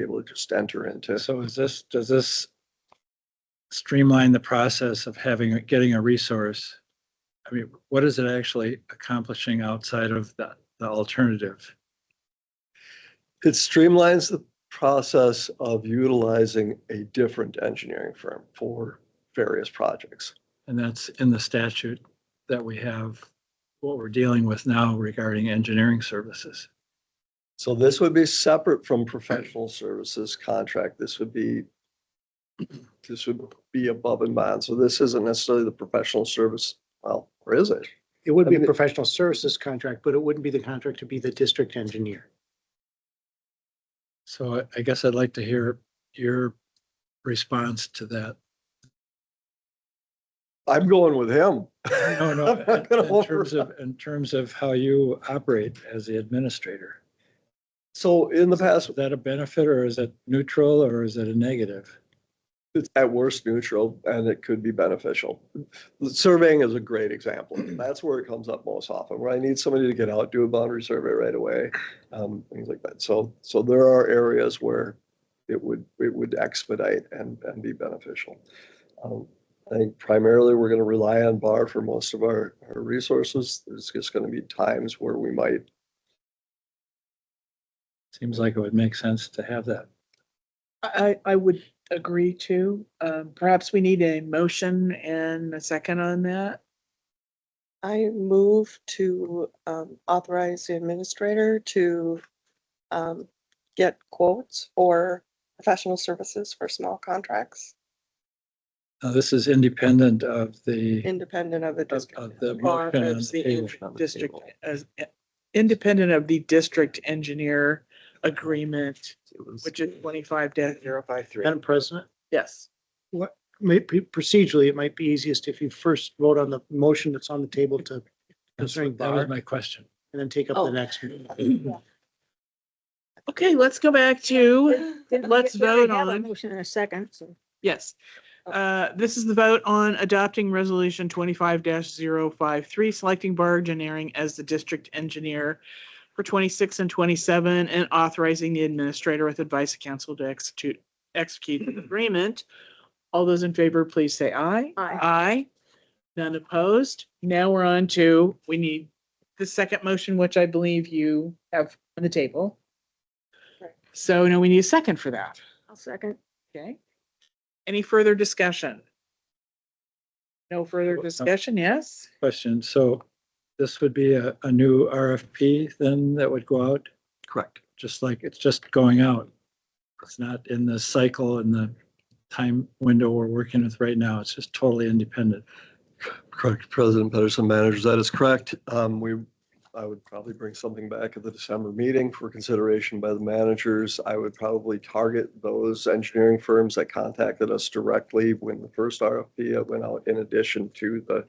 be able to just enter into. So is this, does this streamline the process of having, getting a resource? I mean, what is it actually accomplishing outside of the, the alternative? It streamlines the process of utilizing a different engineering firm for various projects. And that's in the statute that we have, what we're dealing with now regarding engineering services. So this would be separate from professional services contract. This would be, this would be above and beyond. So this isn't necessarily the professional service, well, or is it? It would I be a mean- professional services contract, but it wouldn't be the contract to be the district engineer. So I- I guess I'd like to hear your response to that. I'm going with him. No, no, I'm not gonna in- in hold terms her of, in terms of how you operate as the administrator. So in the past, Is that a benefit or is it neutral or is it a negative? it's at worst neutral and it could be beneficial. Surveying is a great example. That's where it comes up most often, where I need somebody to get out, do a boundary survey right away, um, things like that. So, so there are areas where it would, it would expedite and, and be beneficial. Um, I think primarily we're gonna rely on bar for most of our, our resources. There's just gonna be times where we might Seems like it would make sense to have that. I, I would agree too. Um, perhaps we need a motion and a second on that. I move to um, authorize the administrator to um, get quotes for professional services for small contracts, Now, this is independent of the, independent of the of district. of the Or motion on as the the table. in- district, as, eh, independent of the district engineer agreement, which is twenty-five dash zero five three. Madam President? Yes. What, may- p- procedurally, it might be easiest if you first vote on the motion that's on the table to That's- concerning That bar was and my question. then take up Oh. the next. one. Okay, let's go back to, let's vote on. Motion in a second, so. yes. Uh, this is the vote on adopting resolution twenty-five 53 selecting Bar Engineering as the district engineer for twenty-six and twenty-seven, and authorizing the administrator with advice of council to execute, execute the agreement. All those in favor, please say aye. Aye. Aye. None opposed. Now we're on to, we need the second motion, which I believe you have on the table. Right. So now we need a second for that. I'll second. Okay. Any further discussion? No further Well, uh, discussion, yes? Question, so this would be a, a new RFP then that would go out, correct. just like it's just going out. It's not in the cycle and the time window we're working with right now. It's just totally independent. Correct, President Pedersen managers, that is correct. Um, we, I would probably bring something back at the December meeting for consideration by the managers. I would probably target those engineering firms that contacted us directly when the first RFP that went out, in addition to the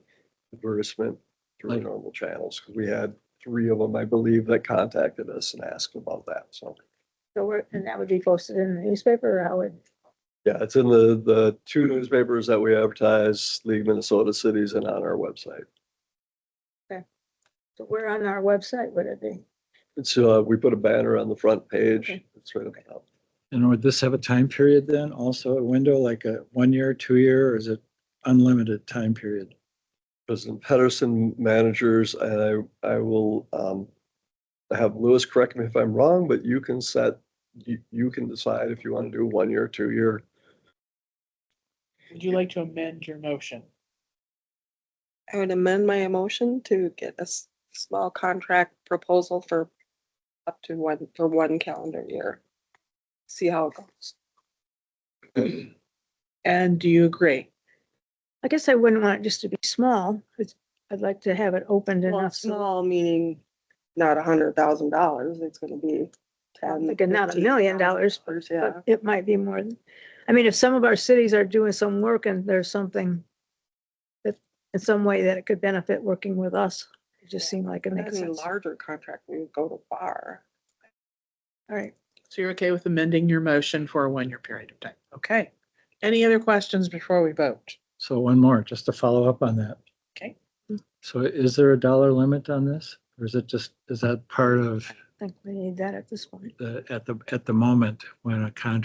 advertisement through Like- normal channels, because we had three of them, I believe, that contacted us and asked about that, so. So we're, and that would be posted in the newspaper or how would, Yeah, it's in the, the two newspapers that we advertise, League of Minnesota Cities and on our website. so where on our website would it be? So uh, we put a banner on the front page. Okay. It's right up top. And would this have a time period then? Also a window, like a one year, two year, or is it unlimited time period? President Pedersen, managers, and I, I will um, have Lewis correct me if I'm wrong, but you can set, you, you can decide if you want to do one year, two year. Would you like to amend your motion? I would amend my motion to get a s- small contract proposal for up to one, for one calendar year. See how it goes. And do you agree? I guess I wouldn't want it just to be small. It's- I'd like to have it opened Well, enough. so- Small meaning not a hundred thousand dollars, it's gonna be ten. Like a not a million dollars, $15,000, Yeah. but It might be more than, I mean, if some of our cities are doing some work and there's something that, in some way that it could benefit working with us, it just seemed like it makes Any sense. All larger contract, we would go to bar. right. So you're okay with amending your motion for a one-year period of time? Okay. Any other questions before we vote? So one more, just to follow up on that. Okay. So is there a dollar limit on this? Or is it just, is that part of think we need that at this point. the, at the, at the moment when a contract